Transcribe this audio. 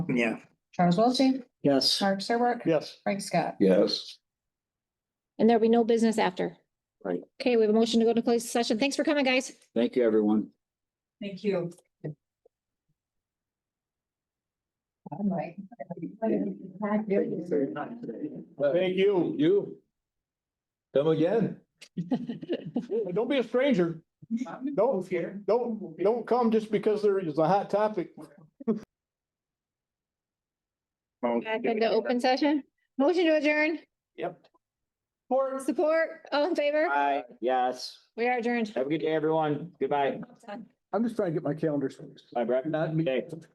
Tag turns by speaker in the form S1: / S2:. S1: Yeah.
S2: Charles Wiltie,
S1: Yes.
S2: Mark Serbrook,
S1: Yes.
S2: Frank Scott.
S3: Yes.
S4: And there'll be no business after.
S3: Right.
S4: Okay, we have a motion to go to closed session. Thanks for coming, guys.
S3: Thank you, everyone.
S2: Thank you.
S5: Thank you.
S3: You. Come again.
S5: Don't be a stranger. Don't, don't, don't come just because there is a hot topic.
S4: Back into open session. Motion to adjourn,
S5: Or
S4: support, all in favor?
S6: Aye, yes.
S4: We are adjourned.
S6: Have a good day, everyone. Goodbye.
S5: I'm just trying to get my calendar.
S6: Bye, Brett.
S5: Not me.
S6: Okay.